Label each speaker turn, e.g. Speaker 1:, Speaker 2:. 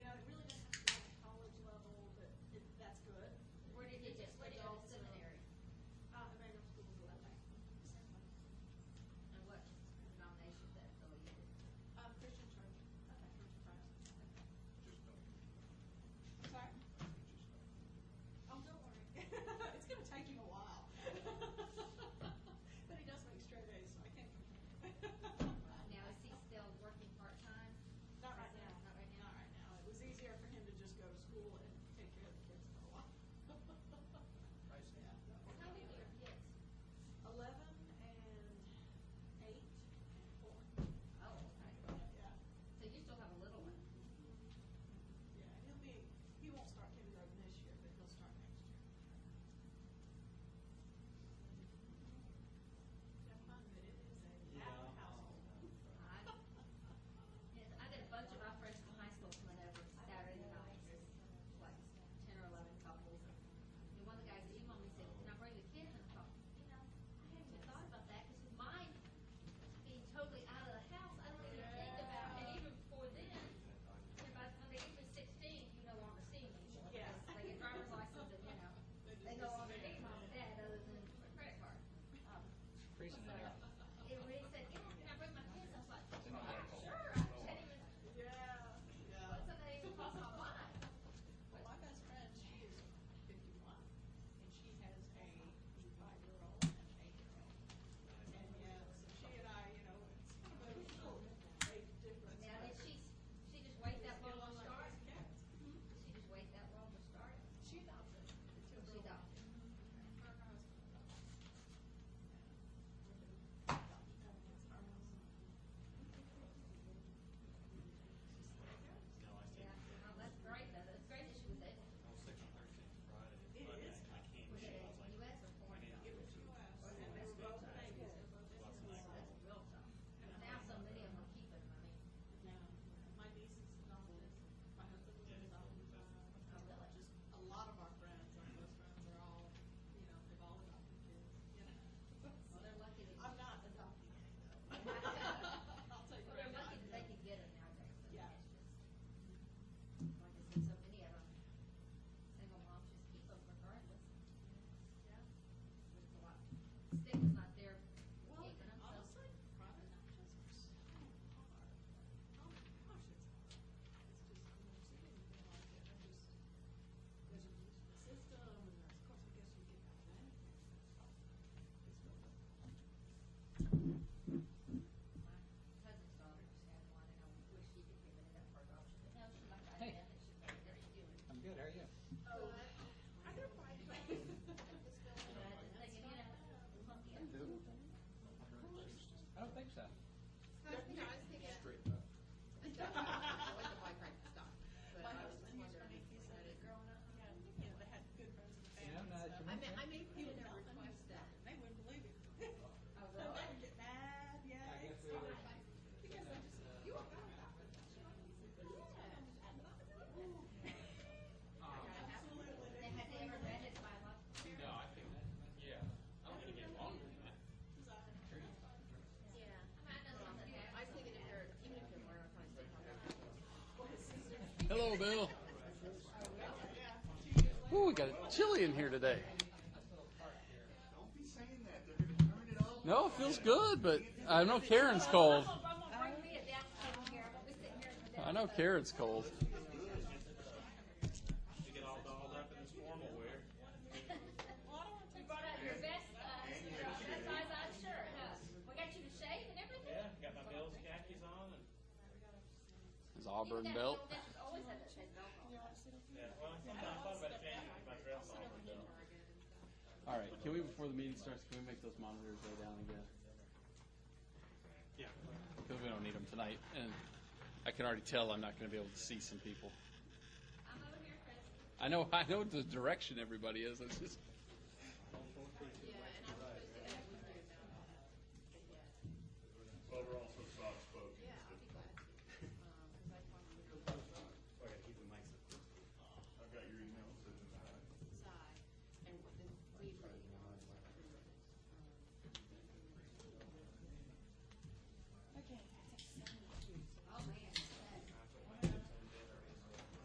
Speaker 1: uh, school and take care of the kids for a while. Yeah.
Speaker 2: How many are kids?
Speaker 1: Eleven and eight and four.
Speaker 2: Oh, okay.
Speaker 1: Yeah,
Speaker 2: So you still have a little one?
Speaker 1: yeah, he'll be, he won't start kindergarten this year, but he'll start next year. Have fun, but it is a loud household.
Speaker 2: I, yes, I got a bunch of my friends from high school coming over Saturday night, there's like ten or eleven couples. And one of the guys emailed me and said, can I bring the kids? And I thought, you know, I hadn't even thought about that, because mine being totally out of the house, I don't even think about, and even before then, if I, when they get to sixteen, you no longer see them anymore.
Speaker 1: Yeah.
Speaker 2: because They get driver's license and, you know, they no longer need mom and dad other than for a credit card. Um,
Speaker 3: Freezing it up.
Speaker 2: it really said, yeah, can I bring my kids? I was like,
Speaker 3: in my
Speaker 2: "Yeah,
Speaker 3: bag.
Speaker 2: sure, I just hadn't even,
Speaker 1: Yeah, yeah.
Speaker 2: what's something that even crossed my mind?
Speaker 1: Well, my best friend, she is fifty-one, and she has a five-year-old and an eight-year-old. And yeah, so she and I, you know, it's kind of a little age difference.
Speaker 2: Now,
Speaker 1: but
Speaker 2: did she, she just wait
Speaker 1: we
Speaker 2: that
Speaker 1: still
Speaker 2: long to
Speaker 1: like these
Speaker 2: start?
Speaker 1: cats.
Speaker 2: She just wait that long to start?
Speaker 1: She adopted. It's a
Speaker 2: She
Speaker 1: girl.
Speaker 2: adopted.
Speaker 1: Mhm. Her and her husband adopted. Yeah. Adopted them, it's our house.
Speaker 2: Yeah, well, that's great though, that's great that she was able to.
Speaker 1: It is.
Speaker 2: Was it US or foreign?
Speaker 1: It was you asked, and they were both babies, they were both
Speaker 2: That's
Speaker 1: babies.
Speaker 2: real tough. 'Cause now so many of them are keeping money.
Speaker 1: No, my niece is adopted, my husband was adopted, uh,
Speaker 2: Oh, really?
Speaker 1: just a lot of our friends, our close friends are all, you know, they've all adopted kids, you know.
Speaker 2: Well, they're lucky that,
Speaker 1: I'm
Speaker 2: well,
Speaker 1: not adopting any though. I'll tell you right
Speaker 2: they're
Speaker 1: now.
Speaker 2: lucky that they can get it nowadays. I
Speaker 1: Yeah.
Speaker 2: mean, it's just- Like I said, so many of them, single moms just keep them regardless.
Speaker 1: Yeah.
Speaker 2: It's a lot. Stigma's not there. for
Speaker 1: Well,
Speaker 2: keeping them, so-
Speaker 1: honestly, private adoptions are so hard. Oh, gosh, it's hard. It's just, I've never seen anything like it. I just, there's a the system, and there's, of course, I guess you get that money. It's real difficult.
Speaker 2: My cousin's daughter just had one, and I wish she could give it up for adoption, but no, she like, I
Speaker 3: Hey.
Speaker 2: that she like, there you do it.
Speaker 3: I'm good, how are you?
Speaker 1: Oh, I don't mind.
Speaker 2: But I was thinking, you know, it's monkey up.
Speaker 3: I don't think so.
Speaker 1: My husband used to make these up growing up. Yeah. You know, they had good friends and
Speaker 3: You know,
Speaker 1: family
Speaker 3: now
Speaker 1: and
Speaker 3: that
Speaker 1: stuff.
Speaker 3: you mention it,
Speaker 1: He would not request that, and they wouldn't believe it.
Speaker 2: Oh,
Speaker 1: They
Speaker 2: really?
Speaker 1: would get mad, yeah, they started, because they just, you are bad about it. Absolutely.
Speaker 2: They had they ever read his bylaws?
Speaker 4: No, I think, yeah, I'm gonna get longer than that.
Speaker 5: Yeah,
Speaker 2: I mean, I know some that have.
Speaker 5: I was thinking if they're, even if they're learning, I'd probably still have them.
Speaker 6: Hello, Bill.
Speaker 1: Yeah.
Speaker 6: Ooh, we got it chilly in here today.
Speaker 7: Don't be saying that. They're going to turn it off.
Speaker 6: No, it feels good, but I know Karen's cold.
Speaker 2: I'm gonna bring me a desk table here, I'm gonna be sitting here. with a
Speaker 6: I know
Speaker 2: desk.
Speaker 6: Karen's cold.
Speaker 4: You get all dolled up in this formal wear.
Speaker 2: You brought out your best, uh, your best size on shirt, huh? We got you to shave and everything?
Speaker 4: Yeah, got my Bill's khakis on and,
Speaker 6: His Auburn
Speaker 2: That-
Speaker 6: belt.
Speaker 2: that was always had that said belt on.
Speaker 4: yeah, well, sometimes I thought about changing my dress on, but no.
Speaker 6: All right, can we before the meeting starts? Can we make those monitors go down again?
Speaker 4: Yeah.
Speaker 6: Because we don't need them tonight, and I can already tell I'm not going to be able to see some people.
Speaker 2: I'm over here, Chris.
Speaker 6: I know, I know the direction everybody is. It's just
Speaker 4: uh,